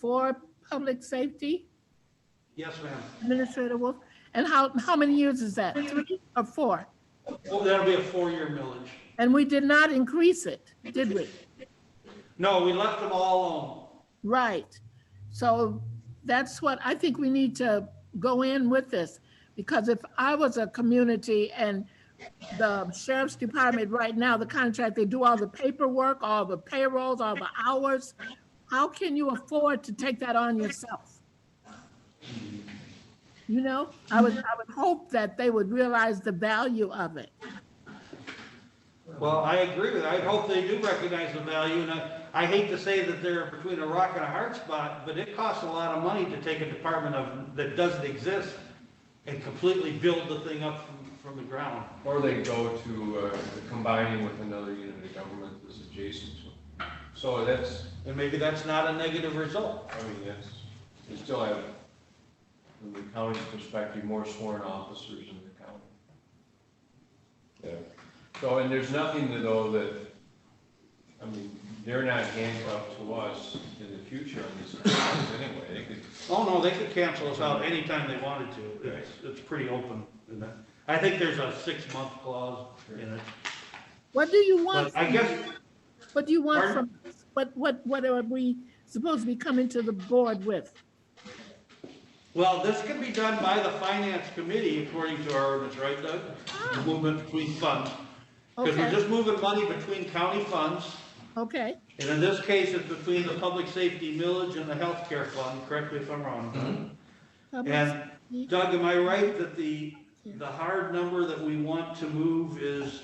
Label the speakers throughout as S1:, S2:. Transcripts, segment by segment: S1: for public safety,
S2: Yes, ma'am.
S1: Administrator Wolf? And how, how many years is that? Three or four?
S2: Well, Oh, that'll be a four-year millage.
S1: And we did not increase it, did we?
S2: No, we left them all
S1: Right. So that's what, I think we need to go in with this. Because if I was a community and the sheriff's department right now, the contract, they do all the paperwork, all the payrolls, all the hours. How can you afford to take that on yourself? You know, I would, I would hope that they would realize the value of it.
S2: alone. Well, I agree with, I hope they do recognize the value, and I, I hate to say that they're between a rock and a hard spot, but it costs a lot of money to take a department of, that doesn't exist and completely build the thing up from, from the ground.
S3: Or they go to uh, combining with another unit of government that's adjacent to. it. So that's,
S2: And maybe that's not a negative result.
S3: I mean, that's, you still have, from the county's perspective, more sworn officers in the county. Yeah. So, and there's nothing to though that, I mean, they're not handcuffed to us in the future on this contract anyway. They could
S2: Oh, no, they could cancel us out anytime they wanted to. It's, it's pretty open. in that. I think there's a six-month clause in it.
S1: What do you want?
S2: But I
S1: from
S2: guess,
S1: What do you want from,
S2: Pardon?
S1: us? what, what, what are we supposed to be coming to the board with?
S2: Well, this can be done by the finance committee according to our ordinance, right Doug? The Movement between funds. Because we're
S1: Okay.
S2: just moving money between county funds,
S1: Okay,
S2: and in this case, it's between the public safety millage and the healthcare fund, correct me if I'm wrong. Doug.
S1: public-
S2: And Doug, am I right that the, the hard number that we want to move is,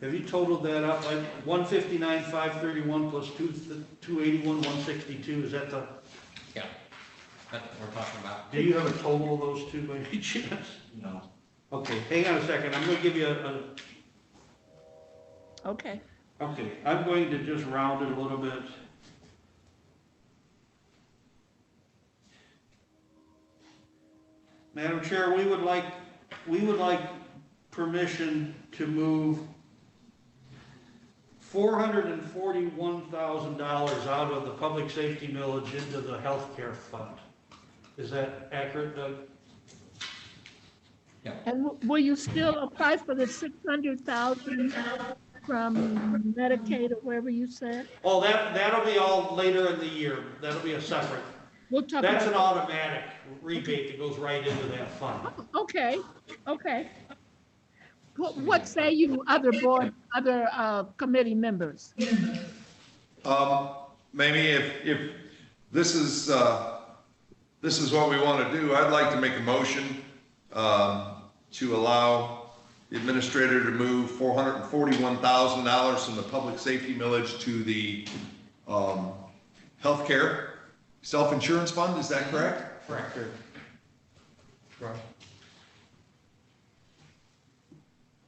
S2: have you totaled that up? Like one fifty-nine, five thirty-one plus two, two eighty-one, one sixty-two, is that the,
S4: Yeah, that's what we're talking about.
S2: do you have a total of those two by any chance?
S4: No.
S2: Okay, hang on a second, I'm gonna give you a,
S1: okay,
S2: a- okay, I'm going to just round it a little bit. Madam Chair, we would like, we would like permission to move four hundred and forty-one thousand dollars out of the public safety millage into the healthcare fund. Is that accurate, Doug?
S1: and w- will you still apply for the six hundred thousand from Medicaid or wherever you said?
S2: Oh, that, that'll be all later in the year, that'll be a separate.
S1: We'll talk
S2: That's an
S1: about,
S2: automatic rebate that goes right into that fund.
S1: okay, okay. What, what say you other board, other, uh, committee members?
S5: Um, Mamie, if, if this is, uh, this is what we want to do, I'd like to make a motion, um, to allow the administrator to move four hundred and forty-one thousand dollars from the public safety millage to the, um, healthcare self-insurance fund, is that correct?
S2: Correct.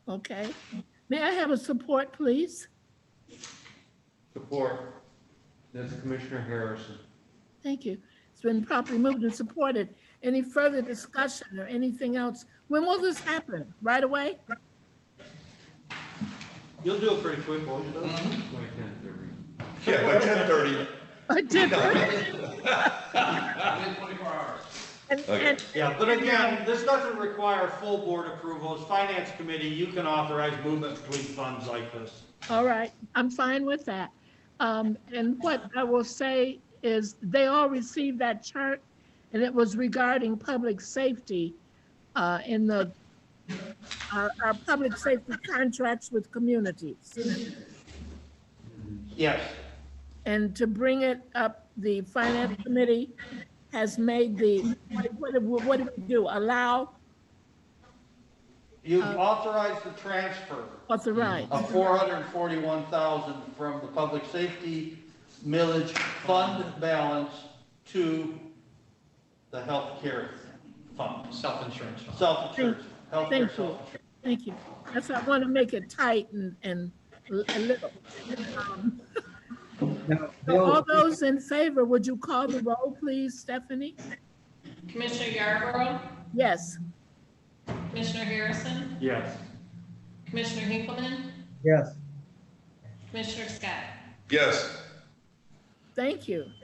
S1: Okay, may I have a support, please?
S3: Support. That's Commissioner Harrison.
S1: Thank you. It's been properly moved and supported. Any further discussion or anything else? When will this happen? Right away?
S2: You'll do it pretty quick, won't you, Doug?
S4: Mm-hmm.
S3: Why can't there be?
S5: Yeah, by ten thirty.
S1: I did.
S4: Within twenty-four hours.
S1: And, and,
S2: Yeah, but again, this doesn't require full board approval. As finance committee, you can authorize movement between funds like this.
S1: all right, I'm fine with that. Um, and what I will say is they all received that chart and it was regarding public safety, uh, in the, our, our public safety contracts with communities.
S2: Yes.
S1: And to bring it up, the finance committee has made the, what, what, what do we do? Allow,
S2: You've authorized the transfer
S1: authorize?
S2: of four hundred and forty-one thousand from the public safety millage fund balance to the healthcare fund,
S4: Self-insurance fund.
S2: self-insurance, healthcare
S1: Thank you,
S2: self-insurance.
S1: thank you. That's, I want to make it tight and, and l- a little. Um, so All those in favor, would you call the roll, please, Stephanie?
S6: Commissioner Yarborough,
S1: Yes,
S6: Commissioner Harrison,
S2: Yes.
S6: Commissioner Hinkleman,
S7: Yes,
S6: Commissioner Scott.
S5: Yes,
S1: thank you.